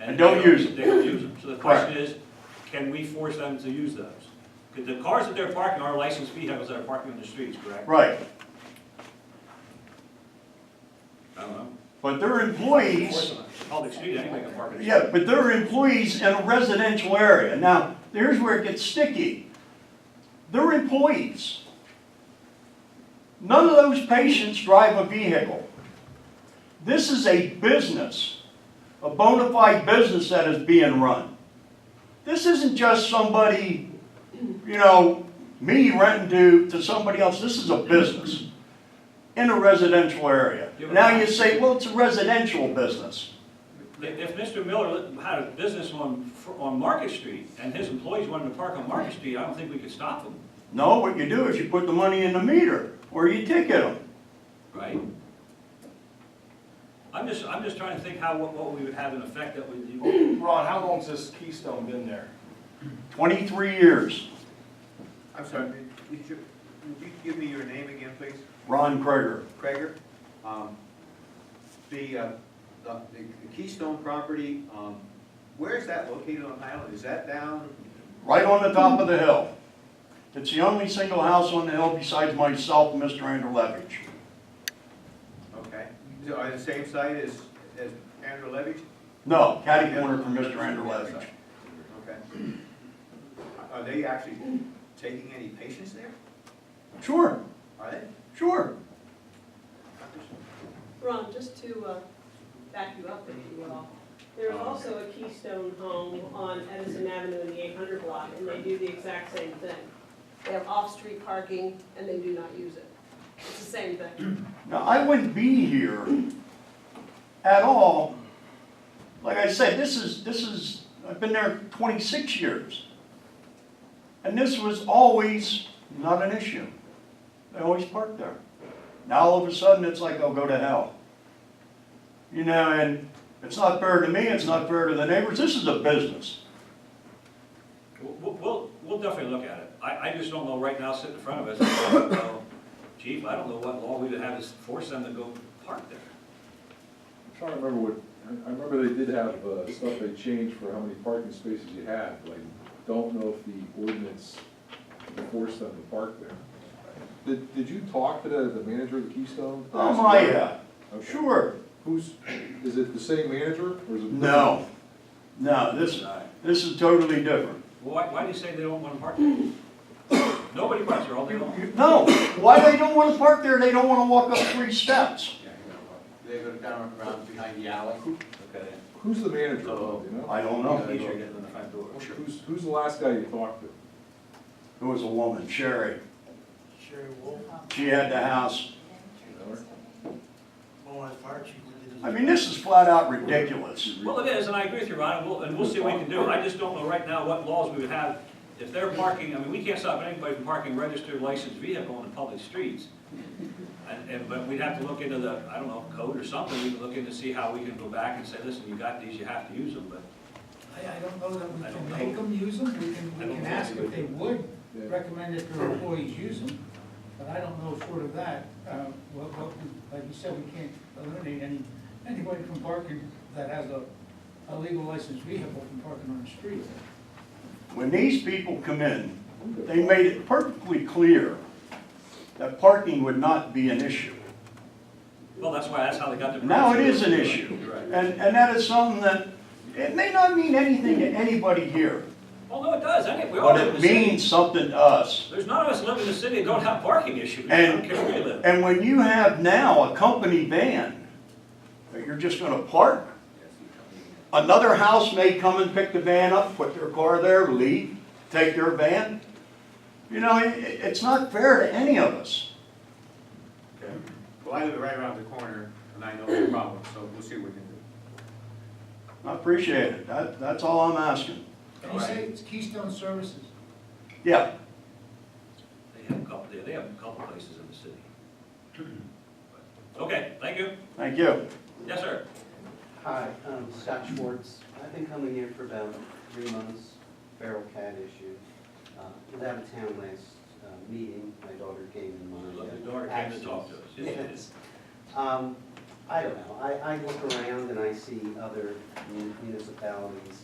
And don't they use them. They don't use them. So the question is, can we force them to use those? Because the cars that they're parking are licensed vehicles that are parking on the streets, correct? Right, I don't know. but they're Force employees, them. Public street, anybody can park in the street. yeah, but they're employees in a residential area. Now, here's where it gets sticky. They're employees. None of those patients drive a vehicle. This is a business, a bona fide business that is being run. This isn't just somebody, you know, me renting to, to somebody else, this is a business in a residential area. Now you say, well, it's a residential business. If if Mr. Miller had a business on, on Market Street and his employees wanted to park on Market Street, I don't think we could stop them, No, what you do is you put the money in the meter, or you ticket them. right? I'm just, I'm just trying to think how, what what we would have an effect that would, you- Ron, how long's this Keystone been there? Twenty-three years, I'm sorry, would you, would you give me your name again, please? Ron Kreger. Craigor? Um, The, uh, the the Keystone property, um, where is that located on Highland? Is that down? right on the top of the hill. It's the only single house on the hill besides myself and Mr. Andrew Levitch. Okay. Is it on the same site as, as Andrew Levy? No, catty corner from Mr. Andrew Levitch. Okay. Are they actually taking any patients there? Sure, Are they? sure. Ron, just to uh, back you up, if you will, there is also a Keystone Home on Edison Avenue in the eight hundred block, and they do the exact same thing. They have off-street parking, and they do not use it. It's the same thing. Now, I wouldn't be here at all. Like I said, this is, this is, I've been there twenty-six years. And this was always not an issue. They always parked there. Now, all of a sudden, it's like, oh, go to hell. You know, and it's not fair to me, it's not fair to the neighbors, this is a business. We'll- we'll, we'll, we'll definitely look at it. I, I just don't know right now, sitting in front of us, I don't know, chief, I don't know what law we would have to force them to go park there. I'm trying to remember what, I remember they did have uh, stuff they changed for how many parking spaces you had, but I don't know if the ordinance forced them to park there. Did, did you talk to the, the manager of the Keystone? Oh, my, yeah, Okay. sure. Who's, is it the same manager, or is it? No, no, this, this is totally different. Well, Why, why do you say they don't want to park there? Nobody parks there all day long. No, why they don't wanna park there, they don't wanna walk up three steps. They go down around behind the alley. Okay. Who's the manager, do you know? I don't know. Teacher gets in the front door. Who's, who's the last guy you talked to? It was a woman, Sherry. Sherry Wolf, She had the house. Bowen Fire Chief. we did this- I mean, this is flat out ridiculous. Well, it is, and I agree with you, Ron, and we'll, and we'll see what we can do. I just don't know right now what laws we would have. If they're parking, I mean, we can't stop anybody from parking registered licensed vehicle on the public streets. And, and, but we'd have to look into the, I don't know, code or something, we can look into see how we can go back and say, listen, you got these, you have to use them, but I, I don't know that we I don't can know. make them use them, we can, I we don't can think ask we if they would Yeah. recommend that their employees use them, but I don't know short of that, uh, what, what, we- like you said, we can't eliminate any, anybody from parking that has a, a legal licensed vehicle from parking on the street. When these people come in, they made it perfectly clear that parking would not be an issue. Well, that's why, that's how they got the. Now it is an issue. Right. And, and that is something that, it may not mean anything to anybody here, Well, no, it does, I think, we all but live in it the city. means something to us. There's none of us live in the city that don't have parking issues, I And- don't care where you live. And when you have now a company van, that you're just gonna park, another house may come and pick the van up, put their car there, leave, take their van. You know, it, it- it's not fair to any of us. Well, I live right around the corner, and I know the problem, so we'll see what we can do. I appreciate it, that, that's all I'm asking. Oh, Can you say it's Keystone Services? Yeah, They have a couple, they- they have a couple places in the city. Okay, thank you. thank you. Yes, sir. Hi, I'm Scott Schwartz. I've been coming here for about three months, feral cat issue. Uh, Was out of town last uh, meeting, my daughter came in my. Your uh, daughter came to talk to us. absence. Yes, it is. Um, I don't know, I, I look around and I see other mun- municipalities